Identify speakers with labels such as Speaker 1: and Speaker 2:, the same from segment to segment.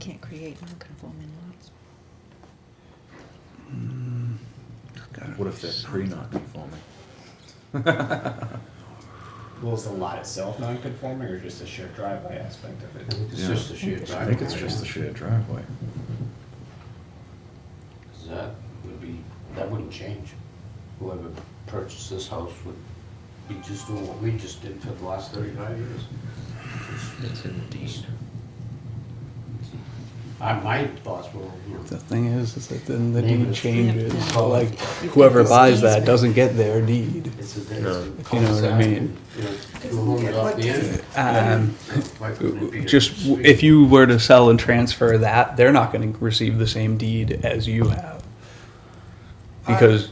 Speaker 1: can't create non-conforming lots.
Speaker 2: Mm.
Speaker 3: What if they're pre non-conforming?
Speaker 4: Well, is the lot itself non-conforming or just a shared driveway aspect of it?
Speaker 5: It's
Speaker 3: Yeah.
Speaker 5: just the shared
Speaker 3: I
Speaker 5: driveway.
Speaker 3: think it's just the shared driveway.
Speaker 5: 'Cause That would be, that wouldn't change. Whoever purchased this house would be just doing what we just did for the last thirty-five years. It's indeed. I, my thoughts were, you know,
Speaker 2: The thing is, is that then the
Speaker 5: Name
Speaker 2: deed
Speaker 5: is-
Speaker 2: changes,
Speaker 1: Yeah.
Speaker 2: so like,
Speaker 1: You
Speaker 2: whoever
Speaker 1: can
Speaker 2: buys
Speaker 1: just
Speaker 2: that doesn't get their deed.
Speaker 5: it's a, it's a.
Speaker 2: You know what I mean?
Speaker 5: cul-de-sac, you know, two homes off the end.
Speaker 2: Um,
Speaker 5: Why couldn't it be a
Speaker 2: Just, w-
Speaker 5: street?
Speaker 2: if you were to sell and transfer that, they're not gonna receive the same deed as you have. Because,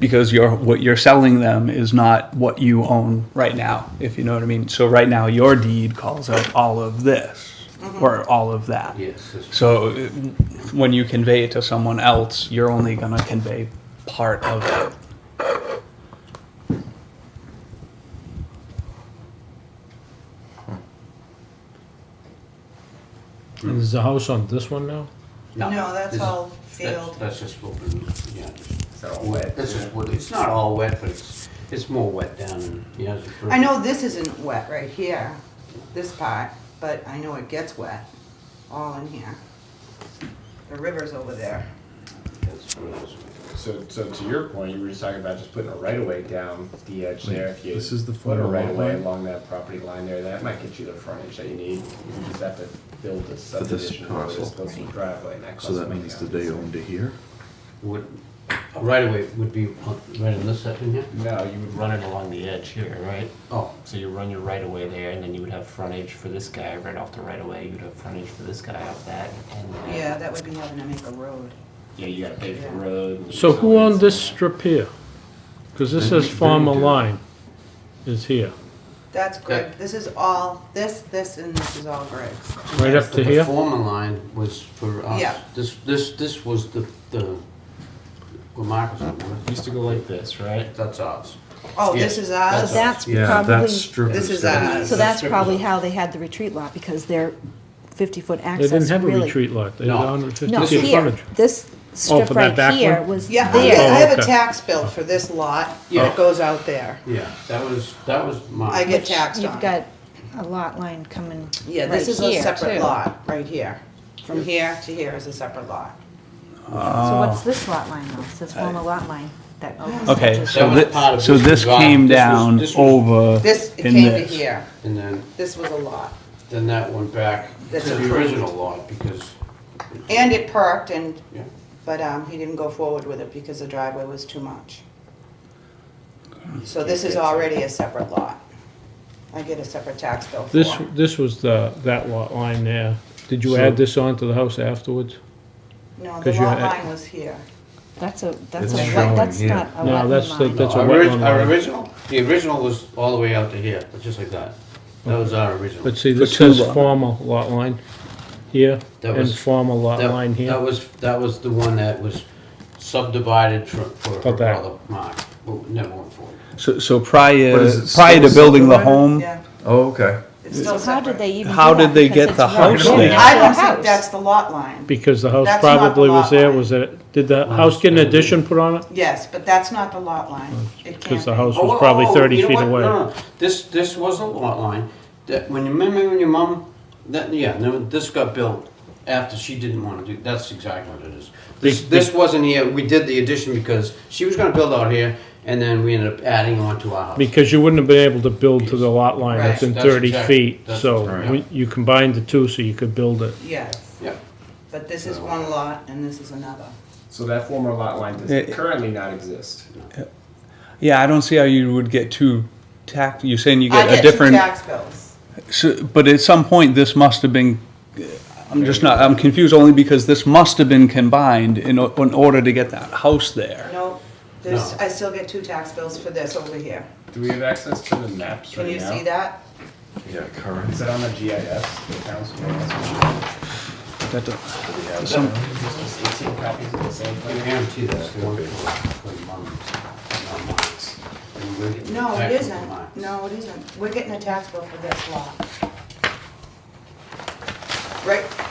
Speaker 2: because you're, what you're selling them is not what you own right now, if you know what I mean. So right now, your deed calls out all of this,
Speaker 3: Mm-hmm.
Speaker 2: or all of that.
Speaker 5: Yes, it's-
Speaker 2: So uh, when you convey it to someone else, you're only gonna convey part of it.
Speaker 5: Hmm.
Speaker 6: Is the house on this one now?
Speaker 1: No, that's
Speaker 5: this-
Speaker 1: all
Speaker 5: that's-
Speaker 1: field.
Speaker 5: That's just what we, yeah,
Speaker 4: Is that all
Speaker 5: wet,
Speaker 4: wet?
Speaker 5: this is what, it's not all wet, but it's, it's more wet down in, you know. it's a-
Speaker 1: I know this isn't wet right here, this part, but I know it gets wet, all in here. The river's over there.
Speaker 5: That's what it is.
Speaker 4: So, so to your point, you were just talking about just putting a right of way down the edge there. If you
Speaker 3: this is the
Speaker 4: put a
Speaker 3: former
Speaker 4: right of way
Speaker 3: lot line?
Speaker 4: along that property line there, that might get you the frontage that you need. You just have to build a
Speaker 3: this
Speaker 4: subdivision over this
Speaker 3: parcel.
Speaker 4: coastal driveway and that
Speaker 3: So
Speaker 4: costs
Speaker 3: that
Speaker 4: money,
Speaker 3: means that they
Speaker 4: obviously.
Speaker 3: owned it here?
Speaker 5: Would, a right away would be on- right on this section here?
Speaker 4: No, you would
Speaker 7: run it along the edge here, right?
Speaker 5: Oh,
Speaker 7: So you run your right away there, and then you would have frontage for this guy right off the right away. You'd have frontage for this guy off that, and then
Speaker 1: Yeah, that would be having to make a road.
Speaker 7: yeah, you got to pay for the road. and
Speaker 6: So who
Speaker 7: utilities
Speaker 6: owned this
Speaker 7: and
Speaker 6: strip here? Because this says farmer line is here,
Speaker 1: That's Greg, this is all, this, this, and this is all Greg's.
Speaker 6: right up to
Speaker 5: the
Speaker 6: here?
Speaker 5: former line was for us.
Speaker 1: Yeah.
Speaker 5: This, this, this was the, the, what Marcus was doing.
Speaker 7: that. Used to go like this, right?
Speaker 5: that's ours.
Speaker 1: Oh, this
Speaker 5: Yes,
Speaker 1: is ours?
Speaker 5: that's
Speaker 8: That's
Speaker 3: Yeah,
Speaker 8: probably,
Speaker 3: that's strip.
Speaker 1: This is
Speaker 3: that.
Speaker 1: ours.
Speaker 8: so that's
Speaker 5: That's-
Speaker 8: probably how they had the retreat lot, because their fifty-foot
Speaker 6: They
Speaker 8: access really.
Speaker 6: didn't have a retreat lot, they had
Speaker 5: No.
Speaker 8: No,
Speaker 6: 150 feet of
Speaker 8: here,
Speaker 6: frontage.
Speaker 8: this strip
Speaker 6: for that back
Speaker 8: right here
Speaker 6: one?
Speaker 8: was there.
Speaker 1: Yeah, I have- I have a
Speaker 6: okay.
Speaker 1: tax bill for this lot
Speaker 5: Yeah.
Speaker 1: that goes out there.
Speaker 5: Yeah, that was, that was mine.
Speaker 1: I get
Speaker 8: which
Speaker 1: taxed on
Speaker 8: You've
Speaker 1: it.
Speaker 8: got a lot line coming
Speaker 1: Yeah, this
Speaker 8: right
Speaker 1: is a
Speaker 8: here,
Speaker 1: separate
Speaker 8: too.
Speaker 1: lot, right here. From here to here is a separate lot.
Speaker 8: So what's this lot line though, this former lot line that opens up
Speaker 2: Okay,
Speaker 8: to-
Speaker 2: so
Speaker 5: was part
Speaker 2: thi-
Speaker 5: of
Speaker 2: so
Speaker 5: this
Speaker 2: this
Speaker 5: design.
Speaker 2: came
Speaker 5: This was-
Speaker 2: down
Speaker 5: this was-
Speaker 2: over
Speaker 1: This, it
Speaker 2: in
Speaker 1: came to
Speaker 2: this.
Speaker 1: here.
Speaker 5: And then,
Speaker 1: This was a lot.
Speaker 5: then that went back to
Speaker 1: That's
Speaker 5: the
Speaker 1: approved.
Speaker 5: original lot because,
Speaker 1: And it perked and,
Speaker 5: yeah.
Speaker 1: but um, he didn't go forward with it because the driveway was too much. So this is already a separate lot. I get a separate tax bill for
Speaker 6: This,
Speaker 1: it.
Speaker 6: this was the, that lot line there. Did you add this on to the house afterwards?
Speaker 1: No, the
Speaker 6: 'cause you
Speaker 1: lot
Speaker 6: had-
Speaker 1: line was here.
Speaker 8: That's a, that's
Speaker 3: It's
Speaker 8: a,
Speaker 3: showing
Speaker 8: wet- that's
Speaker 3: here.
Speaker 8: not a
Speaker 6: No,
Speaker 8: lot line.
Speaker 6: that's the- that's a
Speaker 5: Our
Speaker 6: wetland
Speaker 5: orig- Our
Speaker 6: line.
Speaker 5: original, the original was all the way out to here, just like that. That was our original.
Speaker 6: But see, this
Speaker 2: For two
Speaker 6: says
Speaker 2: lot.
Speaker 6: former lot line here
Speaker 5: That
Speaker 6: and
Speaker 5: was-
Speaker 6: former lot
Speaker 5: That-
Speaker 6: line
Speaker 5: That
Speaker 6: here.
Speaker 5: was, that was the one that was subdivided for, for
Speaker 6: For that.
Speaker 5: another mark, Well, never went forward.
Speaker 2: So, so
Speaker 3: But
Speaker 2: prior,
Speaker 3: is it
Speaker 2: prior to
Speaker 3: still
Speaker 2: building the
Speaker 3: separated?
Speaker 2: home,
Speaker 1: Yeah,
Speaker 3: Oh, okay.
Speaker 1: it's still
Speaker 8: So how did
Speaker 1: separate.
Speaker 8: they even do
Speaker 2: How did
Speaker 8: that?
Speaker 2: they
Speaker 8: Because
Speaker 2: get the
Speaker 8: it's one
Speaker 2: house
Speaker 8: big
Speaker 2: there?
Speaker 1: I don't think
Speaker 8: house.
Speaker 1: that's the lot line.
Speaker 6: Because the house
Speaker 1: That's not the
Speaker 6: probably was
Speaker 1: lot
Speaker 6: there,
Speaker 1: line.
Speaker 6: was it, did the
Speaker 5: Well,
Speaker 6: house get an
Speaker 5: it's-
Speaker 6: addition put on it?
Speaker 1: Yes, but that's not the lot line. It can't
Speaker 6: Because the
Speaker 1: be.
Speaker 6: house
Speaker 5: Oh,
Speaker 6: was probably
Speaker 5: oh, oh,
Speaker 6: 30
Speaker 5: you know
Speaker 6: feet
Speaker 5: what?
Speaker 6: away.
Speaker 5: No, no, this, this was a lot line, that, when you, remember when your mom, that, yeah, no, this got built after she didn't wanna do, that's exactly what it is. This,
Speaker 6: Be-
Speaker 5: this wasn't here, we did the addition because she was gonna build out here, and then we ended up adding on to our house.
Speaker 6: Because you wouldn't have been able to build to the lot line
Speaker 1: Right.
Speaker 6: within
Speaker 5: That's
Speaker 6: thirty
Speaker 5: exactly-
Speaker 6: feet,
Speaker 5: that's
Speaker 6: so
Speaker 5: right.
Speaker 6: we- you combined the two so you could build it.
Speaker 1: Yes,
Speaker 5: Yeah,
Speaker 1: but this is one lot and this is another.
Speaker 4: So that former lot line does
Speaker 2: It-
Speaker 4: currently not exist.
Speaker 2: yeah, I don't see how you would get two tax, you're saying you get
Speaker 1: I
Speaker 2: a
Speaker 1: get two
Speaker 2: different.
Speaker 1: tax bills.
Speaker 2: So, but at some point, this must have been, I'm just not, I'm confused only because this must have been combined in, o- in order to get that house there.
Speaker 1: No, there's, I still get two tax bills for this over here.
Speaker 4: Do we have access to the maps
Speaker 1: Can
Speaker 4: right
Speaker 1: you
Speaker 4: now?
Speaker 1: see that?
Speaker 3: Yeah,
Speaker 4: Is
Speaker 3: current.
Speaker 4: that on the GIS? The council?
Speaker 2: That do-
Speaker 4: Do we have
Speaker 2: Some-
Speaker 4: that? Is this 18 copies of the same
Speaker 5: I
Speaker 4: thing?
Speaker 5: guarantee that's the one for, for mom's, not mine's. And we're
Speaker 1: No, it
Speaker 5: actually
Speaker 1: isn't.
Speaker 5: mine's.
Speaker 1: No, it isn't. We're getting a tax bill for this lot. Right,